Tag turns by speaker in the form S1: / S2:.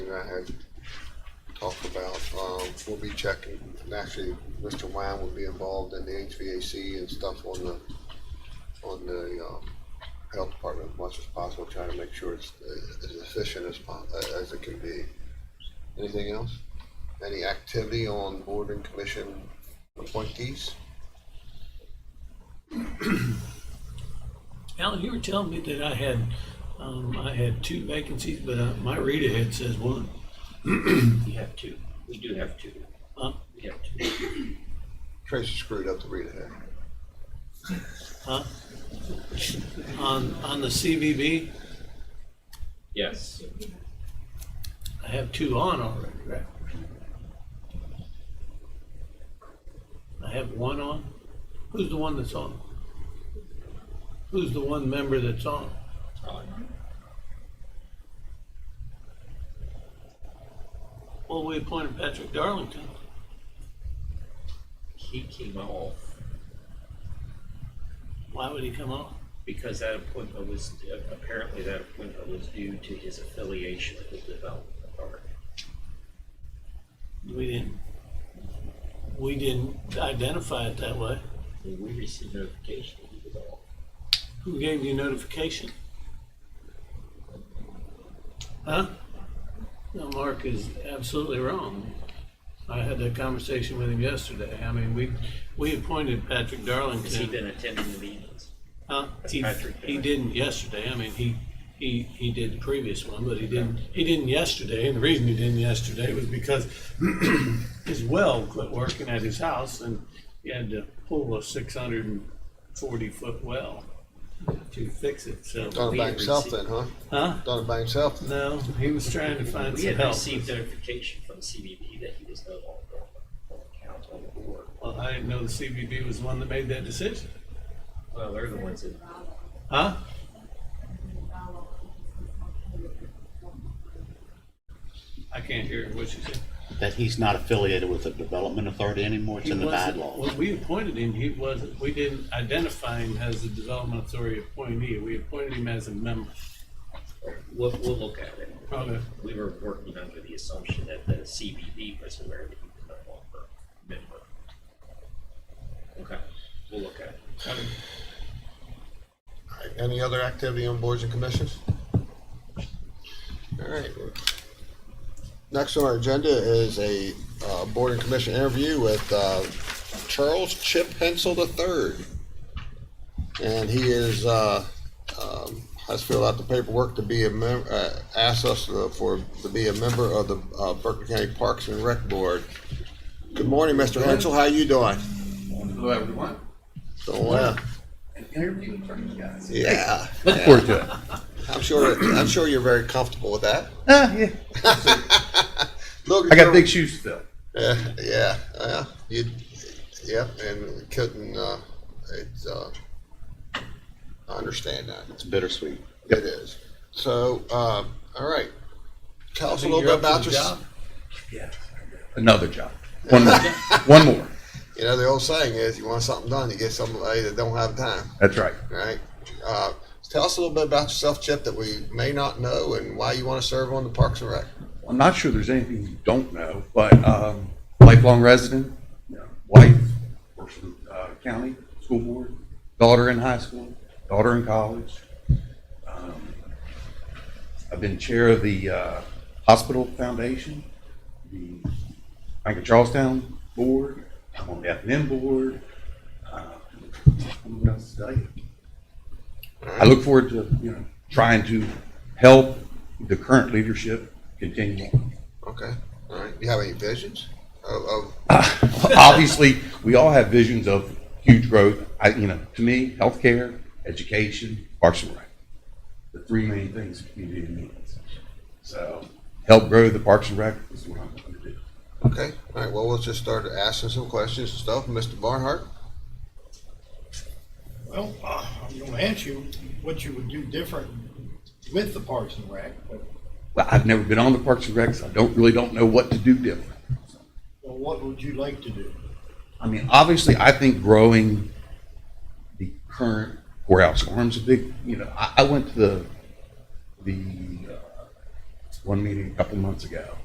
S1: and I had talked about, um, we'll be checking, and actually, Mr. Wine will be involved in the HVAC and stuff on the, on the, um, health department as much as possible, trying to make sure it's uh, as efficient as po- uh, as it can be. Anything else? Any activity on board and commission appointees?
S2: Alan, you were telling me that I had, um, I had two vacancies, but uh, my reader head says one.
S3: We have two. We do have two.
S2: Huh?
S3: We have two.
S1: Tracy screwed up the read ahead.
S2: On, on the CVB,
S3: Yes.
S2: I have two on already, right? I have one on. Who's the one that's on? Who's the one member that's on? Well, we appointed Patrick Darlington.
S3: He came off
S2: Why would he come on?
S3: because that appointment was, apparently that appointment was due to his affiliation with the Development Authority.
S2: We didn't, we didn't identify it that way.
S3: And we received notification that he was off.
S2: Who gave you notification? Huh? No, Mark is absolutely wrong. I had that conversation with him yesterday. I mean, we, we appointed Patrick
S3: Has he
S2: Darlington.
S3: been attending the meetings?
S2: Huh?
S3: That's
S2: He,
S3: Patrick
S2: he
S3: Darlington.
S2: didn't yesterday. I mean, he, he, he did the previous one, but he didn't, he didn't yesterday. And the reason he didn't yesterday was because his well quit working at his house and he had to pull a six hundred and forty foot well to fix it, so.
S1: Done it by
S3: We
S1: himself
S3: received-
S1: then, huh?
S2: Huh?
S1: Done it by himself then?
S2: No, he was trying to find
S3: We
S2: some
S3: had
S2: help.
S3: received notification from CBP that he was no longer on the council on the board.
S2: Well, I didn't know the CBB was the one that made that decision.
S3: Well, they're the ones that,
S2: Huh? I can't hear what you said.
S4: that he's not affiliated with the development authority anymore, it's in
S2: He
S4: the
S2: wasn't-
S4: bylaws.
S2: When we appointed him, he wasn't, we didn't identify him as a development authority appointee. We appointed him as a member.
S3: we'll, we'll look at it.
S2: Okay.
S3: We were working under the assumption that the CBB was aware that he was no longer a member. Okay, we'll look at it.
S2: Okay.
S1: Alright, Any other activity on boards and commissions? All right. Next on our agenda is a uh, board and commission interview with uh, Charles Chip Hensel III. And he is, uh, um, has filled out the paperwork to be a member, asked us uh, for, to be a member of the uh, Berkeley County Parks and Rec Board. Good morning, Mr. Hensel, how you doing?
S5: Hello, everyone.
S1: Doing well.
S5: An interview with Turkey Guys.
S1: Yeah,
S6: Look forward to it.
S1: I'm sure, I'm sure you're very comfortable with that.
S6: Ah, yeah.
S1: Look,
S6: I got big shoes to fill.
S1: Yeah, yeah, yeah. You, yep, and couldn't. Uh, it's. Uh, I understand that.
S4: It's bittersweet.
S1: It is. So, uh, all right. Tell us a
S2: Think
S1: little
S2: you're
S1: bit
S2: up
S1: about
S2: for the
S1: your.
S2: job?
S5: Yes, I know.
S6: Another job. One more. One more.
S1: You know, the old saying is, you want something done, you get somebody that don't have time.
S6: That's right.
S1: Right. Uh, tell us a little bit about yourself, Chip, that we may not know, and why you want to serve on the Parks and Rec.
S6: I'm not sure there's anything you don't know, but um, lifelong resident, you know, wife, works for the uh, county, school board, daughter in high school, daughter in college. Um, I've been chair of the uh, hospital foundation, the Bank of Charlestown board, I'm on the F and M board. Uh, What else to tell you? I look forward to, you know, trying to help the current leadership continue on.
S1: Okay. All right. Do you have any visions Oh, of, of
S6: obviously, we all have visions of huge growth. I, you know, to me, healthcare, education, parks and rec, the three main things the community needs. So, help grow the parks and rec is what I'm going to do.
S1: oh, Okay, all right, well, we'll just start asking some questions and stuff. Mr. Barnhart?
S7: Well, uh, I'm gonna ask you what you would do different with the Parks and Rec, but
S6: Well, I've never been on the parks and rec, so I don't really don't know what to do different.
S7: well, what would you like to do?
S6: I mean, obviously, I think growing the current courthouse arms a big. You know, I, I went to the the uh, one meeting a couple months ago.